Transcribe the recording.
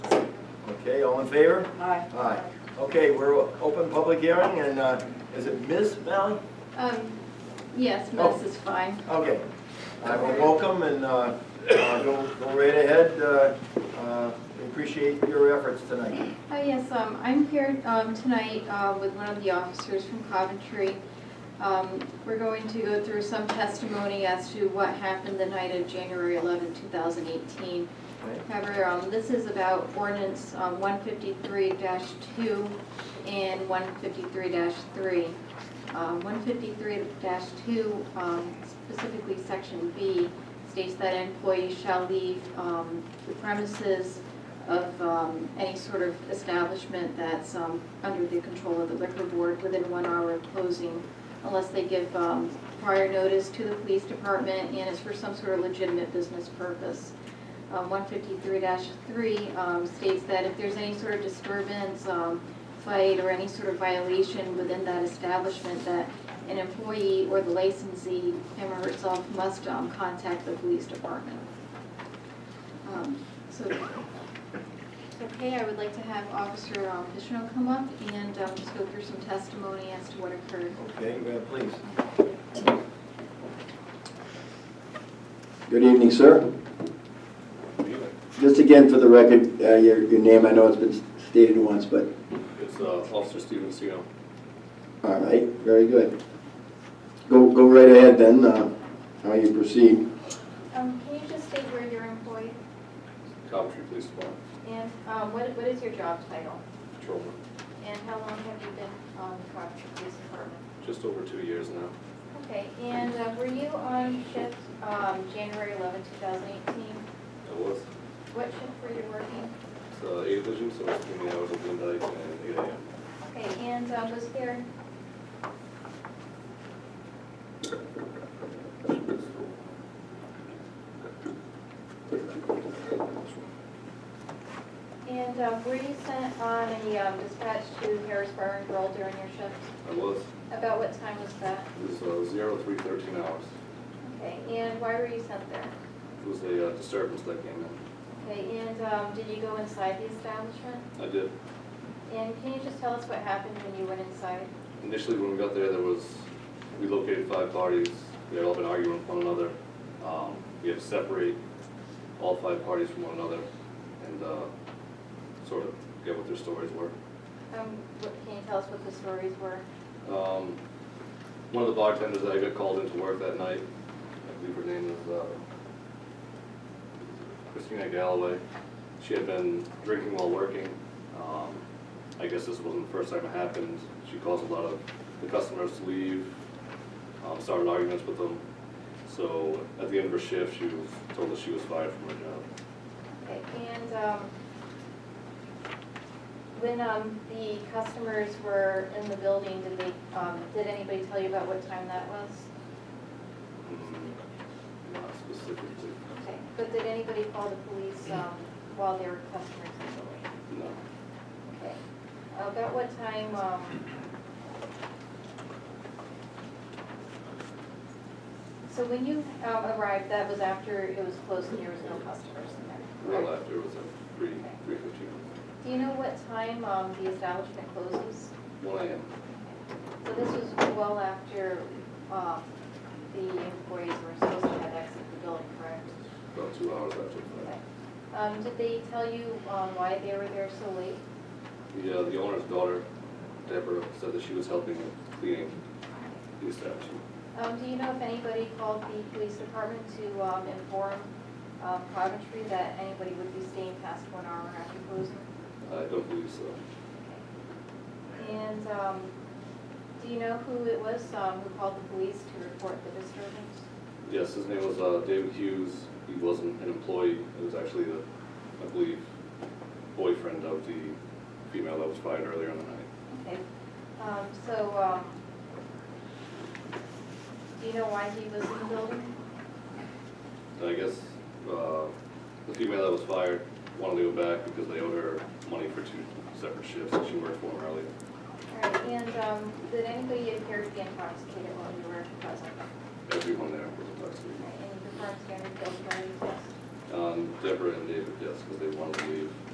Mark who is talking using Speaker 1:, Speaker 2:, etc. Speaker 1: Okay, all in favor?
Speaker 2: Aye.
Speaker 1: Aye. Okay, we're open public hearing, and uh, is it Ms. Valley?
Speaker 3: Um, yes,
Speaker 1: Oh.
Speaker 3: Miss is fine.
Speaker 1: Okay. I will welcome and uh, uh, go go right ahead. uh, uh, we Appreciate your efforts tonight.
Speaker 3: Hi, yes, um, I'm here, um, tonight, uh, with one of the officers from Coventry. Um, we're going to go through some testimony as to what happened the night of January eleventh, two thousand eighteen.
Speaker 1: Okay.
Speaker 3: However, um, this is about ordinance, um, one fifty-three two and one fifty-three three. Um, one fifty-three two, um, specifically section B, states that employees shall leave, um, the premises of, um, any sort of establishment that's, um, under the control of the liquor board within one hour of closing unless they give, um, prior notice to the police department and it's for some sort of legitimate business purpose um, 153-3 um, states that if there's any sort of disturbance, um, fight, or any sort of violation within that establishment, that an employee or the licensee, him or herself, must um, contact the police department. Um, So, okay, I would like to have Officer um, Pishno come up and um, just go through some testimony as to what occurred.
Speaker 1: Okay, uh, please.
Speaker 4: Good evening, sir. Just again, for the record, uh, your your name, I know it's been stated once, but,
Speaker 5: It's uh, Officer Steven Seagal.
Speaker 4: all right, very good. Go go right ahead then, uh, how you proceed.
Speaker 6: Um, can you just state where you're employed
Speaker 5: Coventry Police Department,
Speaker 6: and
Speaker 3: Um, What what is your job title?
Speaker 5: patrolman,
Speaker 6: and how long have you been on the Coventry Police Department?
Speaker 5: just over two years now.
Speaker 6: Okay, and uh, were you on shift, um, January eleventh, two thousand eighteen?
Speaker 5: It was,
Speaker 6: What shift were you working?
Speaker 5: it's uh, eight vision, so it's between the hours of midnight and eight AM.
Speaker 6: Okay, and uh, was there, and uh, were you sent on a um, dispatch to Harrisburg and Roll during your shift?
Speaker 5: It was,
Speaker 6: About what time was that?
Speaker 5: it was uh, zero three thirteen hours.
Speaker 6: Okay, and why were you sent there?
Speaker 5: It was a uh, disturbance that came in.
Speaker 6: Okay, and um, did you go inside the establishment?
Speaker 5: I did,
Speaker 6: And can you just tell us what happened when you went inside?
Speaker 5: initially when we got there, there was, we located five parties. They had all been arguing with one another. Um, We had to separate all five parties from one another and uh, sort of get what their stories were.
Speaker 6: Um, what, can you tell us what the stories were?
Speaker 5: Um, one of the bartenders that I got called into work that night, I believe her name is, uh, Christina Galloway. She had been drinking while working. Um, I guess this wasn't the first time it happened. She caused a lot of the customers to leave, um, started arguments with them. So at the end of her shift, she was told that she was fired from her job.
Speaker 6: Okay, and, um, when, um, the customers were in the building, did they, um, did anybody tell you about what time that was?
Speaker 5: Mm, Not specifically,
Speaker 6: Okay, but did anybody call the police, um, while there were customers in the building?
Speaker 5: no.
Speaker 6: Okay. About what time, um, so when you um, arrived, that was after it was closed and there was no customers in there?
Speaker 5: Well,
Speaker 6: correct?
Speaker 5: after it was at three, three fifteen.
Speaker 6: Do you know what time um, the establishment closes?
Speaker 5: One AM.
Speaker 6: So this was well after um, the employees were supposed to have exited the building, correct?
Speaker 5: About two hours after
Speaker 6: Okay.
Speaker 5: that.
Speaker 6: Um, Did they tell you um, why they were there so late?
Speaker 5: The, uh, the owner's daughter, Deborah, said that she was helping with cleaning the establishment.
Speaker 6: Um, do you know if anybody called the police department to, um, inform, um, Coventry that anybody would be staying past one hour after closing?
Speaker 5: I don't believe so.
Speaker 6: And, um, do you know who it was, um, who called the police to report the disturbance?
Speaker 5: Yes, his name was, uh, David Hughes. He wasn't an employee. It was actually the, I believe, boyfriend of the female that was fired earlier in the night.
Speaker 6: Okay, um, so, um, do you know why he was in the building?
Speaker 5: And I guess, uh, the female that was fired wanted to go back because they owed her money for two separate shifts that she worked for him earlier.
Speaker 6: All right, and, um, did anybody appear to be intoxicated while you were present?
Speaker 5: Everyone there was intoxicated.
Speaker 6: And you performed standard field sobriety test?
Speaker 5: Um, Deborah and David, yes, because they wanted to leave.